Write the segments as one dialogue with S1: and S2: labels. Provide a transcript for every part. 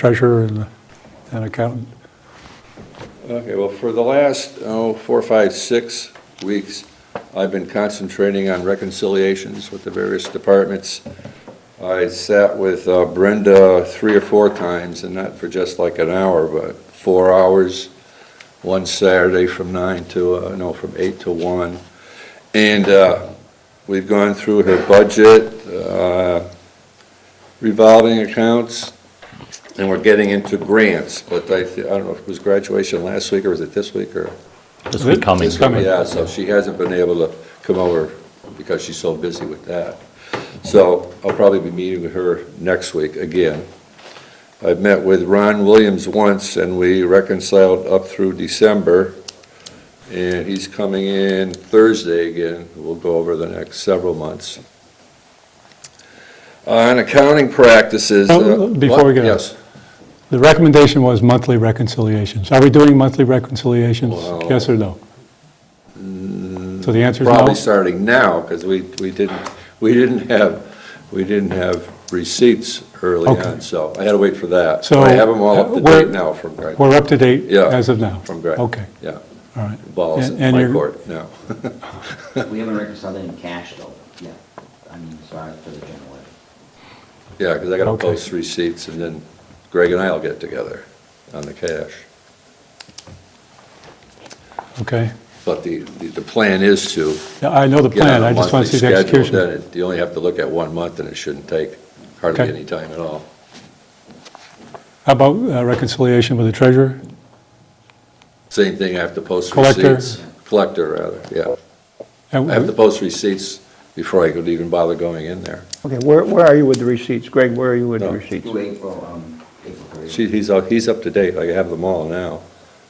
S1: treasurer and the town accountant.
S2: Okay, well, for the last, oh, four, five, six weeks, I've been concentrating on reconciliations with the various departments. I sat with uh, Brenda three or four times, and not for just like an hour, but four hours, one Saturday from nine to, uh, no, from eight to one. And uh, we've gone through her budget, uh, revolving accounts, and we're getting into grants, but I, thi- I don't know if it was graduation last week, or was it this week, or?
S3: This week coming.
S1: This coming.
S2: Yeah, so she hasn't been able to come over because she's so busy with that. So I'll probably be meeting with her next week again. I've met with Ron Williams once, and we reconciled up through December, and he's coming in Thursday again. We'll go over the next several months. On accounting practices.
S1: Now,
S2: uh,
S1: Oh, before we
S2: what?
S1: get on.
S2: Yes.
S1: The recommendation was monthly reconciliations. Are we doing monthly reconciliations?
S2: Well-
S1: Yes or no? So the answer is
S2: Probably
S1: no?
S2: starting now, because we, we didn't, we didn't have, we didn't have receipts early
S1: Okay.
S2: on, so I had to wait for that.
S1: So,
S2: I have them all up to
S1: uh, we're-
S2: date now from Greg,
S1: We're up to date
S2: Yeah,
S1: as of now?
S2: from Greg.
S1: Okay,
S2: yeah,
S1: all right.
S2: balls
S1: And-
S2: in
S1: and
S2: my
S1: you're-
S2: court now.
S4: We haven't reconciled any cash though, yeah, I mean, as far as for the general levy.
S2: Yeah, because I got to
S1: Okay.
S2: post receipts, and then Greg and I will get together on the cash.
S1: Okay.
S2: But the, the the plan is to
S1: Yeah, I know the
S2: get on
S1: plan,
S2: a
S1: I just want to
S2: monthly
S1: see the
S2: schedule, then
S1: execution.
S2: it- you only have to look at one month, and it shouldn't take hardly
S1: Okay.
S2: any time at all.
S1: How about uh, reconciliation with the treasurer?
S2: Same thing, I have to post
S1: Collector.
S2: receipts. Collector, rather, yeah. I have to
S1: And-
S2: post receipts before I could even bother going in there.
S5: Okay, where, where are you with the receipts? Greg, where are you with the
S2: No.
S5: receipts?
S4: Due April, um, April period.
S2: She, he's, up- he's up to date, I have them all now,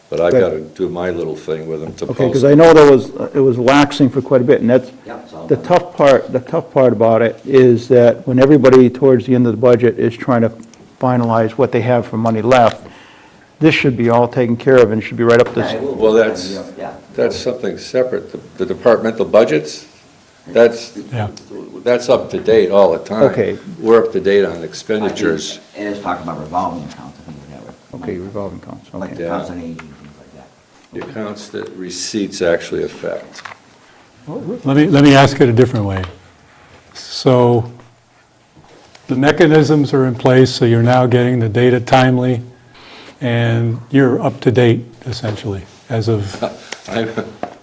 S2: but I've
S5: Good.
S2: got to do my little thing with them to
S5: Okay, because
S2: post.
S5: I know there was, uh, it was laxing for quite a bit, and that's,
S4: Yeah, it's all
S5: the
S4: done.
S5: tough part, the tough part about it is that when everybody towards the end of the budget is trying to finalize what they have for money left, this should be all taken care of and should be right up
S4: Yeah, it
S5: this,
S4: will be
S2: Well,
S4: done,
S2: that's-
S4: yeah, Yeah.
S2: That's something separate, The- the departmental budgets, that's,
S1: Yeah,
S2: that's up to date all the time.
S5: Okay.
S2: We're up to date on
S4: I think
S2: expenditures,
S4: It is talking about revolving accounts, I think, we have it.
S5: okay, revolving accounts,
S4: Like
S5: okay.
S4: the accounts on aging, things like that.
S2: the accounts that receipts actually affect.
S1: let me, let me ask it a different way. So the mechanisms are in place, so you're now getting the data timely, and you're up to date essentially, as of
S2: I,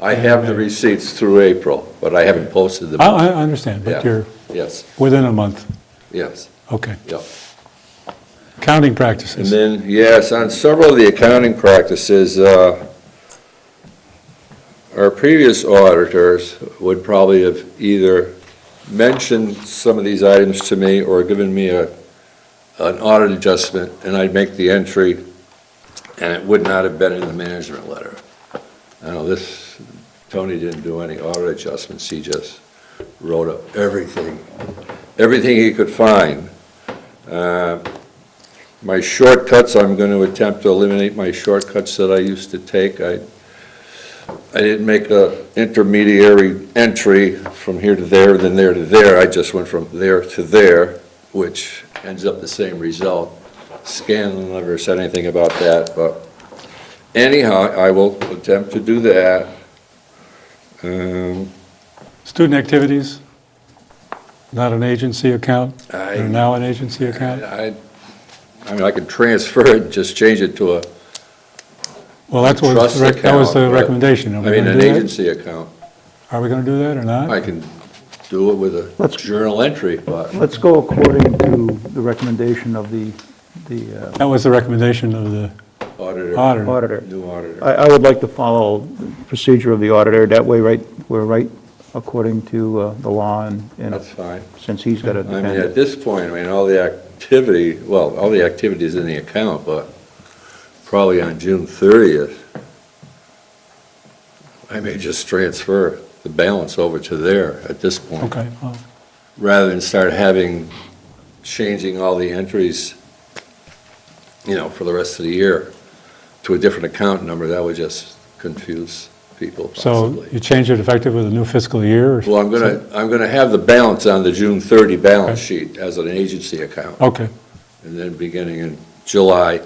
S2: I have the receipts through April, but I haven't posted them.
S1: I, I understand,
S2: Yeah.
S1: but you're
S2: Yes,
S1: within a month.
S2: yes,
S1: Okay.
S2: yep.
S1: Counting
S2: And
S1: practices.
S2: then, yes, on several of the accounting practices, uh, our previous auditors would probably have either mentioned some of these items to me or given me a, an audit adjustment, and I'd make the entry, and it would not have been in the management letter. I know this, Tony didn't do any audit adjustments, he just wrote up everything, everything he could find. Uh, my shortcuts, I'm going to attempt to eliminate my shortcuts that I used to take. I, I didn't make a intermediary entry from here to there, then there to there. I just went from there to there, which ends up the same result. Scanlon never said anything about that, but anyhow, I will attempt to do that. Um,
S1: Student activities, not an agency account.
S2: I-
S1: They're now an agency account.
S2: I, I mean, I could transfer it, just change it to a
S1: Well, that's what,
S2: trust
S1: was the rec-
S2: account.
S1: that was the
S2: but-
S1: recommendation.
S2: I
S1: Are we
S2: mean,
S1: going
S2: an
S1: to do that?
S2: agency account.
S1: Are we going to do that or
S2: I
S1: not?
S2: can do it with a
S5: Let's-
S2: journal entry, but
S5: Let's go according to the recommendation of the, the uh,
S1: That was the recommendation of the
S2: auditor,
S1: auditor.
S5: auditor.
S2: new auditor.
S5: I, I would like to follow the procedure of the auditor, that way, right, we're right according to uh, the law, and, and
S2: That's fine.
S5: since he's got a
S2: I mean, at
S5: dependent.
S2: this point, I mean, all the activity, well, all the activities in the account, but probably on June 30th, I may just transfer the balance over to there at this point.
S1: Okay, well,
S2: rather than start having, changing all the entries, you know, for the rest of the year to a different account number, that would just confuse people
S1: so you
S2: possibly.
S1: change it effective with the new fiscal year? or-
S2: Well, I'm gonna, I'm gonna have the balance on the June 30 balance sheet as an agency account,
S1: Okay,
S2: and then beginning in July